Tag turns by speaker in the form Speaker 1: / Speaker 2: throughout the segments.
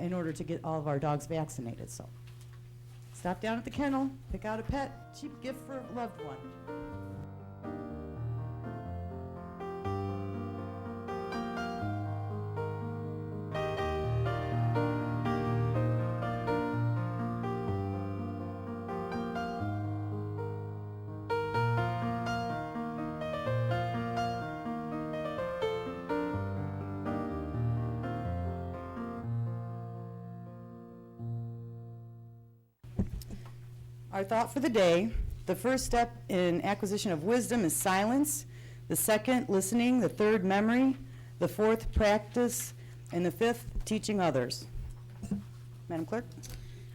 Speaker 1: in order to get all of our dogs vaccinated, so. Stop down at the kennel, pick out a pet, cheap gift for a loved one. Our thought for the day, the first step in acquisition of wisdom is silence, the second, listening, the third, memory, the fourth, practice, and the fifth, teaching others. Madam Clerk?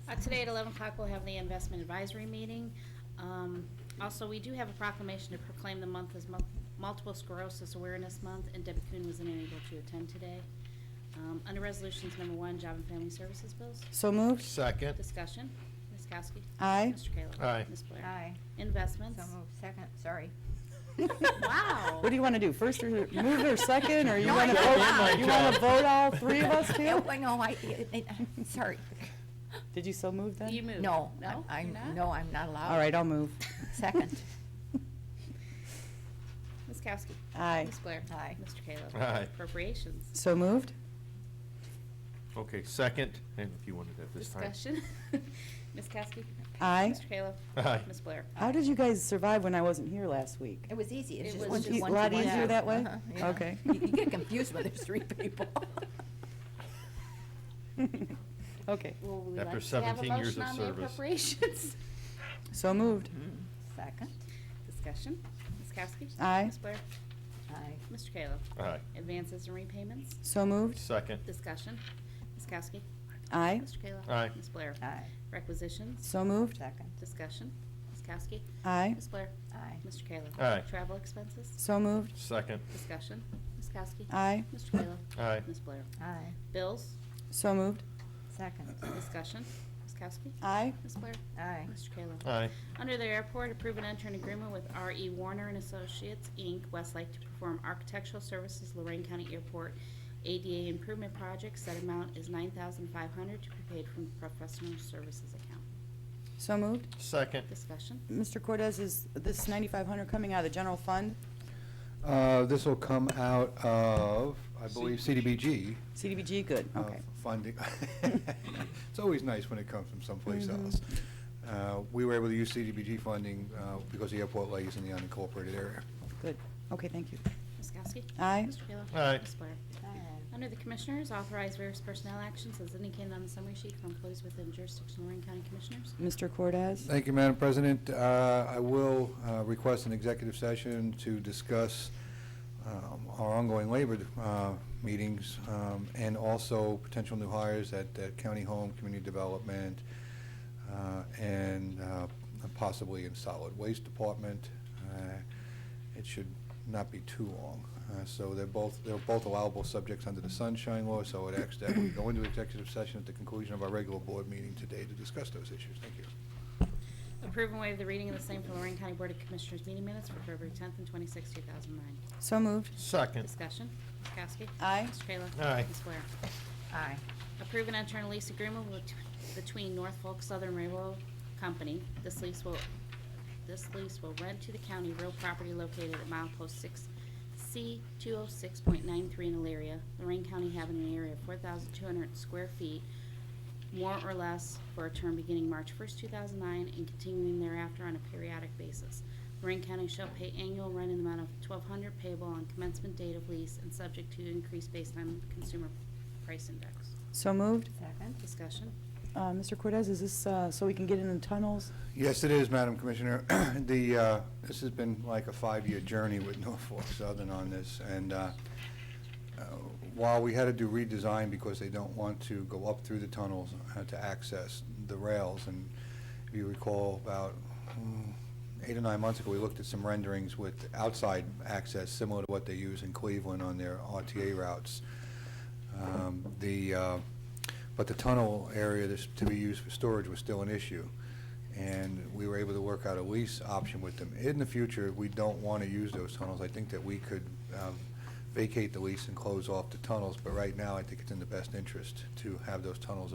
Speaker 2: Uh, Today at 11 o'clock, we'll have the investment advisory meeting. Um, Also, we do have a proclamation to proclaim the month as Mul- Multiple Sclerosis Awareness Month, and Debbie Kuhn was unable to attend today. Um, Under Resolutions Number One, Job and Family Services Bills,
Speaker 1: So moved.
Speaker 3: Second.
Speaker 2: discussion. Ms. Kowski?
Speaker 1: Aye.
Speaker 2: Mr. Kayla?
Speaker 3: Aye.
Speaker 2: Ms. Blair?
Speaker 4: Aye.
Speaker 2: Investments?
Speaker 4: So moved, second, sorry.
Speaker 2: Wow.
Speaker 1: What do you want to do, first or move or second, or you
Speaker 4: No,
Speaker 1: want to
Speaker 4: I did
Speaker 1: vote?
Speaker 4: my
Speaker 1: You want to
Speaker 3: job.
Speaker 1: vote all three of us, too?
Speaker 4: No, no, I, I- I'm sorry.
Speaker 1: Did you so move
Speaker 2: You
Speaker 1: then?
Speaker 2: moved.
Speaker 4: No,
Speaker 2: No?
Speaker 4: I,
Speaker 2: You're not?
Speaker 4: no, I'm not allowed.
Speaker 1: All right, I'll move.
Speaker 4: Second.
Speaker 2: Ms. Kowski?
Speaker 1: Aye.
Speaker 2: Ms. Blair?
Speaker 4: Aye.
Speaker 2: Mr. Kayla?
Speaker 3: Aye.
Speaker 2: Appropriations?
Speaker 1: So moved?
Speaker 3: Okay, second, and if you wanted that this time.
Speaker 2: Discussion. Ms. Kowski?
Speaker 1: Aye.
Speaker 2: Mr. Kayla?
Speaker 3: Aye.
Speaker 2: Ms. Blair?
Speaker 1: How did you guys survive when I wasn't here last week?
Speaker 4: It was easy,
Speaker 2: It
Speaker 4: it's just
Speaker 2: was
Speaker 4: one,
Speaker 2: just
Speaker 4: two,
Speaker 2: one to
Speaker 4: one, two,
Speaker 2: one.
Speaker 4: one.
Speaker 2: Lot easier
Speaker 4: two.
Speaker 1: that way?
Speaker 4: Uh-huh, yeah.
Speaker 1: Okay.
Speaker 4: You you get confused when there's three people.
Speaker 1: Okay,
Speaker 2: Well, we
Speaker 3: After
Speaker 2: like to have a
Speaker 3: 17 years
Speaker 2: motion
Speaker 3: of
Speaker 2: on the
Speaker 3: service.
Speaker 2: appropriations.
Speaker 1: so moved.
Speaker 4: Second,
Speaker 2: Discussion. Ms. Kowski?
Speaker 1: Aye.
Speaker 2: Ms. Blair?
Speaker 4: aye,
Speaker 2: Mr. Kayla?
Speaker 3: Aye.
Speaker 2: Advances and repayments?
Speaker 1: So moved.
Speaker 3: Second.
Speaker 2: Discussion. Ms. Kowski?
Speaker 1: Aye.
Speaker 2: Mr. Kayla?
Speaker 3: Aye.
Speaker 2: Ms. Blair?
Speaker 4: aye,
Speaker 2: Requisitions?
Speaker 1: So moved.
Speaker 4: second,
Speaker 2: Discussion. Ms. Kowski?
Speaker 1: Aye.
Speaker 2: Ms. Blair?
Speaker 4: aye,
Speaker 2: Mr. Kayla?
Speaker 3: Aye.
Speaker 2: Travel expenses?
Speaker 1: So moved.
Speaker 3: Second.
Speaker 2: Discussion. Ms. Kowski?
Speaker 1: Aye.
Speaker 2: Mr. Kayla?
Speaker 3: Aye.
Speaker 2: Ms. Blair?
Speaker 4: aye,
Speaker 2: Bills?
Speaker 1: So moved.
Speaker 4: second,
Speaker 2: Discussion. Ms. Kowski?
Speaker 1: Aye.
Speaker 2: Ms. Blair?
Speaker 4: aye,
Speaker 2: Mr. Kayla?
Speaker 3: Aye.
Speaker 2: Under the airport, approve and enter an agreement with R.E. Warner and Associates, Inc., Westlake, to perform architectural services Lorraine County Airport ADA Improvement Project. Said amount is $9,500 to be paid from the professional services account.
Speaker 1: So moved.
Speaker 3: Second.
Speaker 2: Discussion?
Speaker 1: Mr. Cortez, is this 9,500 coming out of the general fund,
Speaker 5: Uh, This will come out of, I believe, CDBG
Speaker 1: CDBG? Good,
Speaker 5: uh,
Speaker 1: okay.
Speaker 5: funding. It's always nice when it comes from someplace else. Uh, We were able to use CDBG funding uh, because the airport lays in the unincorporated area.
Speaker 1: Good. Okay, thank you.
Speaker 2: Ms. Kowski?
Speaker 1: Aye.
Speaker 2: Mr. Kayla?
Speaker 3: Aye.
Speaker 2: Ms. Blair?
Speaker 4: aye.
Speaker 2: Under the Commissioners, authorize various personnel actions as indicated on the summary sheet for employees within jurisdiction of Lorraine County Commissioners.
Speaker 1: Mr. Cortez?
Speaker 5: Thank you, Madam President. Uh, I will uh, request an executive session to discuss um, our ongoing labor uh, meetings um, and also potential new hires at at County Home, Community Development, uh, and uh, possibly in Solid Waste Department. Uh, It should not be too long. Uh, So they're both, they're both allowable subjects under the Sunshine Law, so it asks that we go into executive session at the conclusion of our regular board meeting today to discuss those issues. Thank you.
Speaker 2: Approve and waive the reading of the same for Lorraine County Board of Commissioners meeting minutes for February 10th and 26th, 2009.
Speaker 1: So moved.
Speaker 3: Second.
Speaker 2: Discussion. Ms. Kowski?
Speaker 1: Aye.
Speaker 2: Mr. Kayla?
Speaker 3: Aye.
Speaker 2: Ms. Blair?
Speaker 4: Aye,
Speaker 2: Approve an internal lease agreement with- between Norfolk Southern Railroad Company. This lease will, this lease will rent to the county real property located at mile post six C two oh six point nine three in Elyria, Lorraine County having an area of four thousand two hundred square feet, more or less, for a term beginning March first, two thousand nine, and continuing thereafter on a periodic basis. Lorraine County shall pay annual rent in the amount of twelve hundred payable on commencement date of lease and subject to increase based on consumer price index.
Speaker 1: So moved.
Speaker 4: second,
Speaker 2: Discussion.
Speaker 1: Uh, Mr. Cortez, is this uh, so we can get in the tunnels?
Speaker 5: Yes, it is, Madam Commissioner. The, uh, this has been like a five-year journey with Norfolk Southern on this, and uh, uh, while we had to do redesign because they don't want to go up through the tunnels uh, to access the rails, and if you recall, about mm, eight or nine months ago, we looked at some renderings with outside access, similar to what they use in Cleveland on their RTA routes. Um, The, uh, but the tunnel area that's to be used for storage was still an issue, and we were able to work out a lease option with them. In the future, if we don't want to use those tunnels, I think that we could um, vacate the lease and close off the tunnels, but right now, I think it's in the best interest to have those tunnels